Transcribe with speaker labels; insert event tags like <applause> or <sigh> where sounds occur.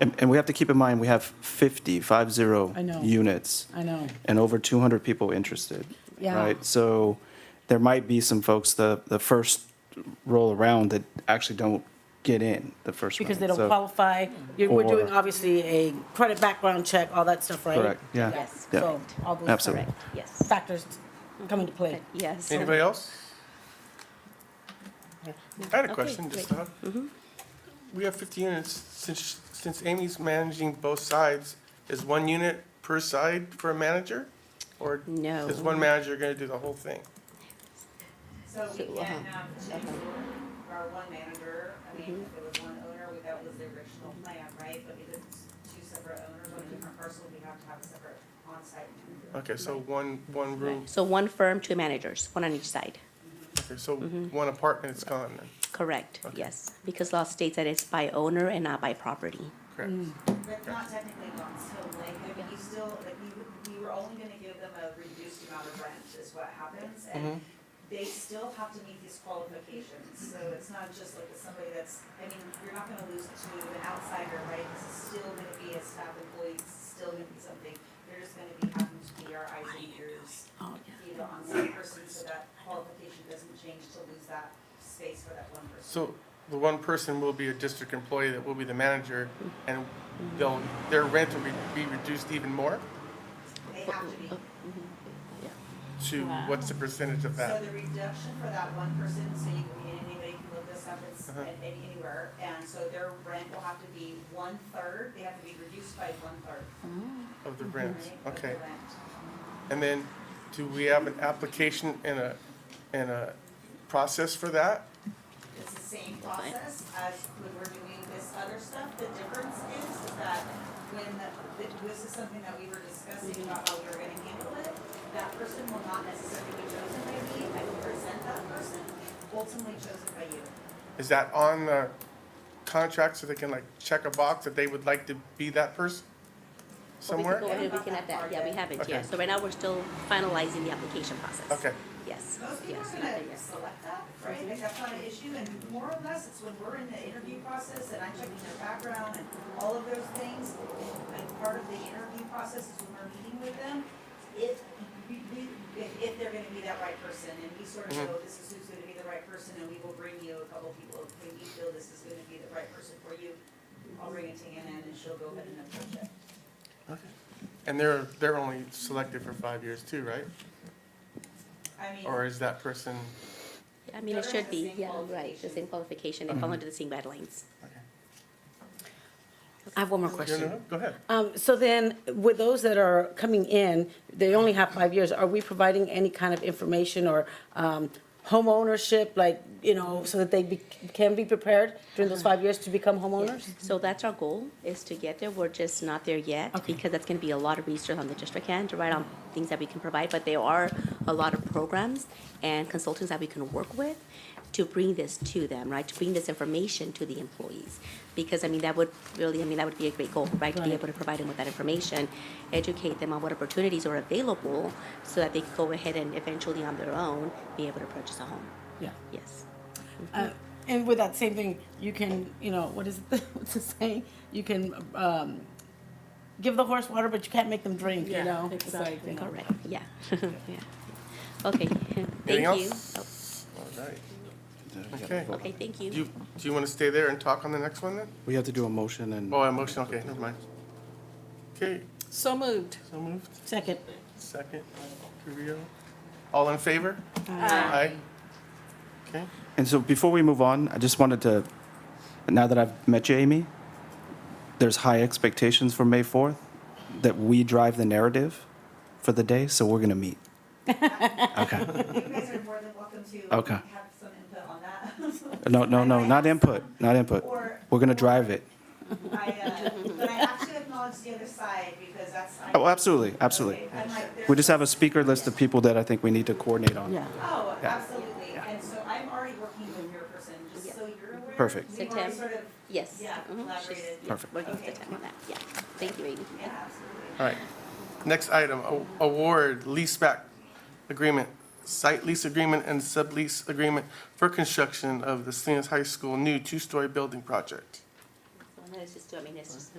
Speaker 1: And, and we have to keep in mind, we have 50, five zero
Speaker 2: I know.
Speaker 1: units.
Speaker 2: I know.
Speaker 1: And over 200 people interested.
Speaker 2: Yeah.
Speaker 1: Right? So there might be some folks, the, the first roll around that actually don't get in the first round.
Speaker 2: Because they don't
Speaker 1: So-
Speaker 2: qualify. You're- We're doing,
Speaker 1: Or-
Speaker 2: obviously, a credit background check, all that stuff, right?
Speaker 1: Correct, yeah.
Speaker 3: Yes.
Speaker 1: yeah.
Speaker 2: So all those
Speaker 1: Absolutely.
Speaker 2: correct
Speaker 3: Yes,
Speaker 2: factors come into play.
Speaker 3: yes.
Speaker 4: Anybody else? I had a question,
Speaker 3: great. Mm-hmm.
Speaker 4: just now. We have 50 units, since, since Amy's managing both sides, is one unit per side for a manager? Or
Speaker 3: No.
Speaker 4: is one manager going to do the whole thing?
Speaker 5: So we
Speaker 3: So, uh-huh.
Speaker 5: can, um, choose our one manager, I mean, if there was one owner, we- that was the original plan, right? But if it's two separate owners on a different parcel, we have to have a separate on-site manager.
Speaker 4: Okay, so one, one room,
Speaker 3: So one firm, two managers, one on each side.
Speaker 4: okay, so
Speaker 3: Mm-hmm.
Speaker 4: one apartment is gone then,
Speaker 3: Correct, yes. Because law states that it's by owner and not by property. Mm.
Speaker 4: correct?
Speaker 5: That's not technically gone, so like, if you still, like, we, would- we were only gonna give them a reduced amount of rent is what happens. And they still have to meet these qualifications, so it's not just like somebody that's, I mean, you're not gonna lose to an outsider, right? This is still gonna be a staff employee, it's still gonna be something, they're just gonna be having to be our eyes and ears.
Speaker 3: Oh,
Speaker 5: Be the on-site person, so that qualification doesn't change to lose that space for that one person.
Speaker 4: So the one person will be a district employee that will be the manager,
Speaker 3: Mm.
Speaker 4: and they'll, their rent will be be reduced even more?
Speaker 5: They have to be.
Speaker 4: To what's the percentage of
Speaker 5: So
Speaker 4: that?
Speaker 5: the reduction for that one person, so you can, mean anybody can look this up, it's
Speaker 4: Uh-huh.
Speaker 5: at any- anywhere, and so their rent will have to be one-third, they have to be reduced by one-third,
Speaker 4: Of the rent,
Speaker 5: right?
Speaker 3: Mm-hmm.
Speaker 5: of the
Speaker 4: okay.
Speaker 5: rent.
Speaker 4: And then, do we have an application and a, and a process for that?
Speaker 5: It's the same process as when we're doing this other stuff, the difference is that when, the- th- this is something that we were discussing about how we were gonna handle it, that person will not necessarily be chosen by me, I will present that person, ultimately chosen by you.
Speaker 4: Is that on the contract so they can like check a box that they would like to be that person somewhere?
Speaker 3: Well, we could go ahead, we can add that, yeah, we haven't
Speaker 4: Okay.
Speaker 3: yet. So right now, we're still finalizing the application process.
Speaker 4: Okay,
Speaker 3: Yes,
Speaker 5: Most people
Speaker 3: yes,
Speaker 5: are
Speaker 3: not there
Speaker 5: gonna
Speaker 3: yet.
Speaker 5: select that, right, like that's not an issue, and more or less, it's when we're in the interview process and I'm checking their background and all of those things. And part of the interview process is when we're meeting with them, if, we- we- if, if they're gonna be that right person, and we sort of
Speaker 1: Mm-hmm.
Speaker 5: know this is who's gonna be the right person, and we will bring you a couple people, if we feel this is gonna be the right person for you, I'll bring it to Anna and she'll go ahead and approach it.
Speaker 4: and they're, they're only selected for five years too, right?
Speaker 5: I mean.
Speaker 4: Or is that person,
Speaker 3: I mean, it
Speaker 5: They're
Speaker 3: should
Speaker 5: the
Speaker 3: be,
Speaker 5: same
Speaker 3: yeah, right, the same qualification,
Speaker 4: Uh-huh.
Speaker 3: they fall under the same guidelines.
Speaker 2: I have one more
Speaker 4: no, no,
Speaker 2: question.
Speaker 4: no, go ahead.
Speaker 2: Um, So then, with those that are coming in, they only have five years, are we providing any kind of information or um, homeownership, like, you know, so that they be- can be prepared during those five years to become homeowners?
Speaker 3: So that's our goal, is to get there. We're just not there yet, because that's gonna be a lot of research on the district hand, right, on things that we can provide, but there are a lot of programs and consultants that we can work with to bring this to them, right, to bring this information to the employees. Because, I mean, that would really, I mean, that would be a great goal, right, to be
Speaker 2: Right.
Speaker 3: able to provide them with that information, educate them on what opportunities are available, so that they can go ahead and eventually on their own, be able to purchase a home,
Speaker 2: Yeah.
Speaker 3: yes.
Speaker 2: Uh, And with that same thing, you can, you know, what is, it- <laughs> what's the saying? You can um, give the horse water, but you can't make them drink, you know? It's like, you know.
Speaker 3: Correct, yeah, yeah.
Speaker 4: <laughs>
Speaker 3: Okay, thank
Speaker 4: Anything
Speaker 3: you.
Speaker 4: else?
Speaker 3: Oh.
Speaker 4: All right. Okay.
Speaker 3: Okay, thank you.
Speaker 4: Do you, do you want to stay there and talk on the next one then?
Speaker 1: We have to do a motion and.
Speaker 4: Oh, emotion, okay, never mind. Okay,
Speaker 6: So moved.
Speaker 4: so moved,
Speaker 2: Second.
Speaker 4: second, Carrillo. All in favor? Aye. Okay,
Speaker 1: And so before we move on, I just wanted to, now that I've met you, Amy, there's high expectations for May 4th that we drive the narrative for the day, so we're going to
Speaker 5: <laughs>
Speaker 1: meet. Okay.
Speaker 5: You guys are more than welcome to
Speaker 1: Okay.
Speaker 5: have some input on that.
Speaker 1: No, no, no,
Speaker 5: <laughs>
Speaker 1: not input, not input. We're going to drive it.
Speaker 5: I, uh, but I have to acknowledge the other side because that's. I-
Speaker 1: Oh, absolutely, absolutely.
Speaker 5: Okay, I'm like, there's-
Speaker 1: We just have a speaker list of people that I think we need to coordinate on.
Speaker 2: Yeah.
Speaker 5: Oh, absolutely. And so I'm already working with your person, just so you're aware.
Speaker 1: Perfect.
Speaker 5: We've already
Speaker 3: Septem-
Speaker 5: sort of.
Speaker 3: Yes.
Speaker 5: Yeah,
Speaker 3: Mhm. She's-
Speaker 5: collaborated.
Speaker 3: yeah,
Speaker 1: Perfect.
Speaker 3: Working with the
Speaker 5: Okay.
Speaker 3: time on that, yeah. Thank you, Amy.
Speaker 5: Yeah, absolutely.
Speaker 4: all right. Next item, a- award leaseback agreement, site lease agreement and sublease agreement for construction of the Salinas High School new two-story building project.
Speaker 3: So let's just do, I mean, it's just